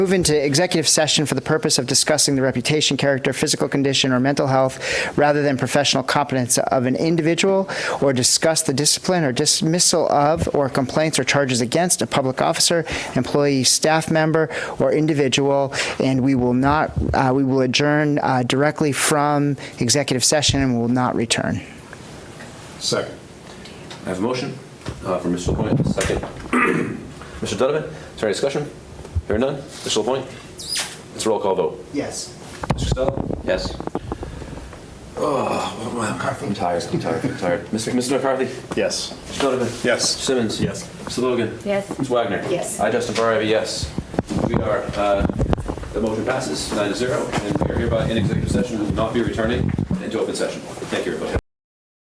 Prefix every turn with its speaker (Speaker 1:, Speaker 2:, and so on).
Speaker 1: move into executive session for the purpose of discussing the reputation, character, physical condition, or mental health rather than professional competence of an individual, or discuss the discipline or dismissal of or complaints or charges against a public officer, employee, staff member, or individual. And we will not, uh, we will adjourn uh, directly from executive session and will not return.
Speaker 2: Second.
Speaker 3: I have a motion uh, from Mr. Lapointe, second. Mr. Donovan, is there any discussion? Hearing none, Mr. Lapointe? It's a roll call vote.
Speaker 1: Yes.
Speaker 3: Mr. Costello? Yes. Oh, well, I'm tired, I'm tired, I'm tired. Mr. Mr. McCarthy?
Speaker 2: Yes.
Speaker 3: Mr. Donovan?
Speaker 2: Yes.
Speaker 3: Mr. Simmons? Yes. Mr. Logan?
Speaker 4: Yes.
Speaker 3: Ms. Wagner?
Speaker 4: Yes.
Speaker 3: I, Justin Ferrari, have a yes. We are, uh, the motion passes nine to zero, and we are hereby in executive session and will not be returning into open session. Thank you, everybody.